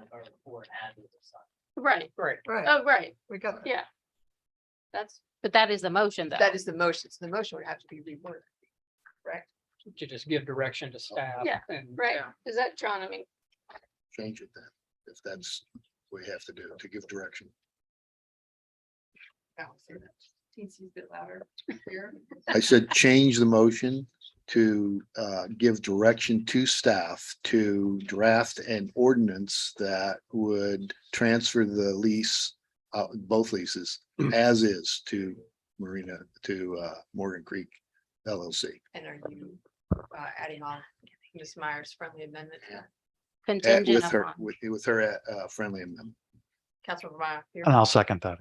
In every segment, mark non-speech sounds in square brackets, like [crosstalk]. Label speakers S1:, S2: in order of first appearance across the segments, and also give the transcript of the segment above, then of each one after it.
S1: of our report as of this time.
S2: Right,
S3: Right,
S4: Right,
S2: oh, right,
S4: we got that.
S2: yeah. That's,
S5: But that is the motion though.
S4: That is the motion. So the motion would have to be reworded.
S3: to just give direction to staff.
S2: Yeah,
S3: and-
S2: right, is that John, I mean,
S6: change it then, if that's what we have to do to give direction.
S4: TC's a bit louder here.
S6: I said, change the motion to uh, give direction to staff to draft an ordinance that would transfer the lease, uh, both leases as is to Marina, to uh, Morgan Creek LLC.
S4: And are you uh, adding on Ms. Myers' friendly amendment? to that?
S6: Uh,
S5: Contingent
S6: With her,
S5: upon.
S6: with, with her uh, friendly amendment.
S4: Councilmember Meyer. here.
S7: And I'll second that.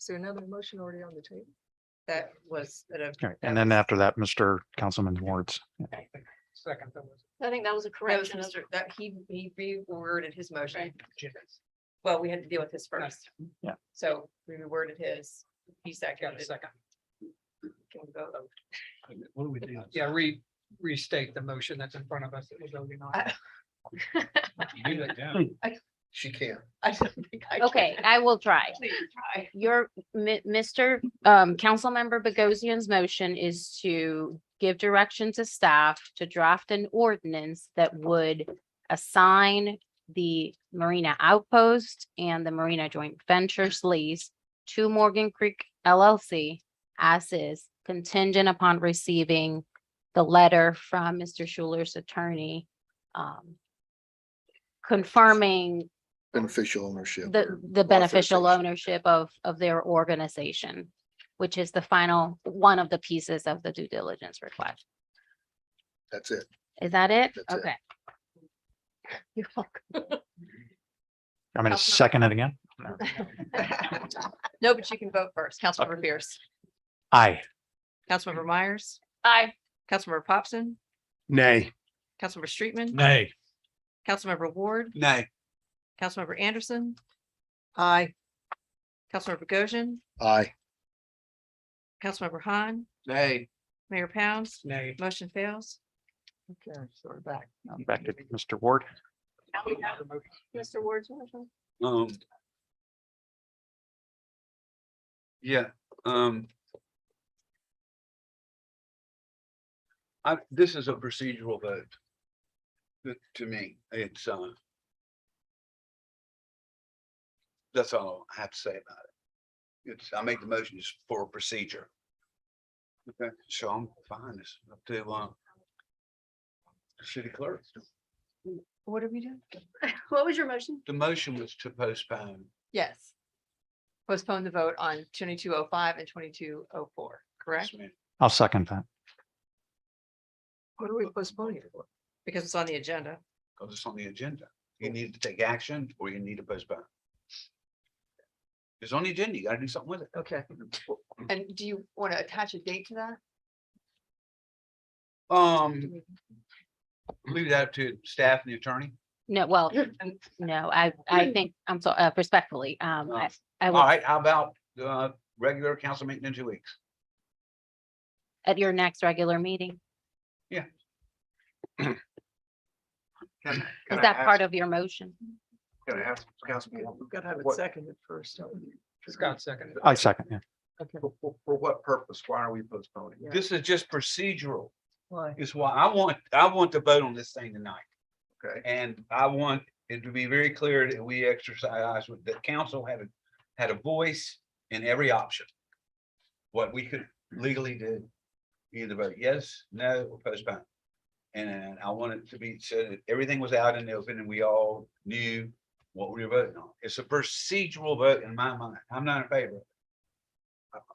S4: Is there another motion already on the table? That was. that I've-
S7: Okay, And then
S4: that
S7: after that, Mr. Councilman Ward's.
S3: Second, that was
S2: I think that was a
S4: was-
S2: correction. [laughs]
S4: That was Mr. That he, he reworded his motion.
S3: Jim's.
S4: Well, we had to deal with his
S3: Right.
S4: first.
S7: Yeah.
S4: So we reworded his, he
S3: Got
S4: seconded.
S3: a second.
S4: Can we vote?
S8: What do we do?
S3: Yeah, re, restate the motion that's in front of us. that we're voting on.
S4: I-
S8: You do that down.
S6: She can.
S4: I don't think I can.
S5: Okay, I will try.
S4: Please try.
S5: Your, mi- Mr. Um, Councilmember Bogosian's motion is to give direction to staff to draft an ordinance that would assign the Marina Outpost and the Marina Joint Ventures lease to Morgan Creek LLC as is contingent upon receiving the letter from Mr. Schuler's attorney um, confirming
S6: Beneficial ownership.
S5: the,
S6: or
S5: the beneficial
S6: authorization.
S5: ownership of, of their organization, which is the final, one of the pieces of the due diligence request.
S6: That's it.
S5: Is that it?
S6: That's it.
S5: Okay. You're welcome.
S7: I'm going
S4: Councilmember-
S7: to second it again.
S4: [laughs] No, but you can vote first. Councilmember Pierce,
S7: Aye.
S8: Mm.
S4: Councilmember Myers,
S2: I,
S4: Councilmember Popson,
S8: Nay.
S4: Councilmember Streetman,
S8: Nay.
S4: Councilmember Ward,
S8: Nay.
S4: Councilmember Anderson. Aye. Councilmember Goshen,
S6: Aye.
S4: Councilmember Han,
S8: Nay.
S4: Mayor Pounds,
S3: Nay.
S4: motion fails.
S3: Okay, so we're back.
S7: Now Back to Mr. Ward.
S2: Mr. Ward's motion,
S8: Um. Yeah, um. I, this is a procedural vote. To- To me, it's, uh. That's all I have to say about it. It's, I make the motion just for procedure. Okay, so I'm fine, it's up to, uh. the City clerk,
S4: What did we do?
S2: what was your motion?
S8: the motion was to postpone.
S4: Yes. Postpone the vote on twenty-two oh five and twenty-two oh four, correct?
S8: Yes, ma'am.
S7: I'll second that.
S4: What are we postponing it for? Because it's on the agenda.
S8: because it's on the agenda. You need to take action or you need to postpone. It's on the agenda. You gotta do something with it.
S4: Okay. And do you want to attach a date to that?
S8: Um, leave that to staff and the attorney.
S5: No, well, no, I,
S2: Mm.
S5: I think, I'm so, uh, respectfully, um, I, I
S8: All
S5: will,
S8: right, how about the regular council meeting in two weeks?
S5: at your next regular meeting,
S8: Is
S5: is that part of your motion?
S8: Can I ask council?
S4: gotta have
S8: it What-
S4: seconded first.
S3: Scott seconded.
S7: I second, yeah.
S8: For what purpose? Why are we postponing?
S4: Yeah.
S8: This is just procedural.
S4: Why?
S8: is why I want, I want to vote on this thing tonight. Okay. And I want it to be very clear that we exercise with the council had a, had a voice in every option. What we could legally do, either vote yes, no, or postpone. And I want it to be said that everything was out in the open and we all knew what we were voting on. It's a procedural vote in my mind. I'm not in favor. of it.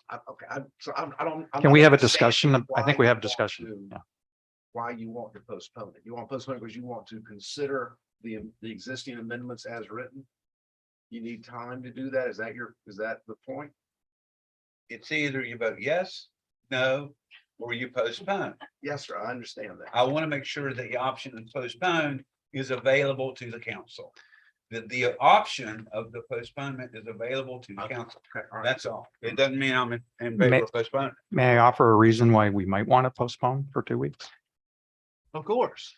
S9: I, okay, I, so I'm, I don't. I'm
S7: Can
S9: not
S7: we have a
S9: understanding
S7: discussion? I think
S9: why
S7: we
S9: you
S7: have a
S9: want
S7: discussion.
S9: to-
S7: Yeah.
S9: Why you want to postpone it? You want to postpone it because you want to consider the, the existing amendments as written? You need time to do that? Is that your, is that the point?
S8: It's either you vote yes, no, or you postpone.
S9: Yes, sir, I understand that.
S8: I want to make sure that the option of postponed is available to the council. That the option of the postponement is available to the council.
S9: Okay, all right.
S8: That's all. It doesn't mean I'm in- in favor of postponement.
S7: May I offer a reason why we might want to postpone for two weeks?
S8: Of course.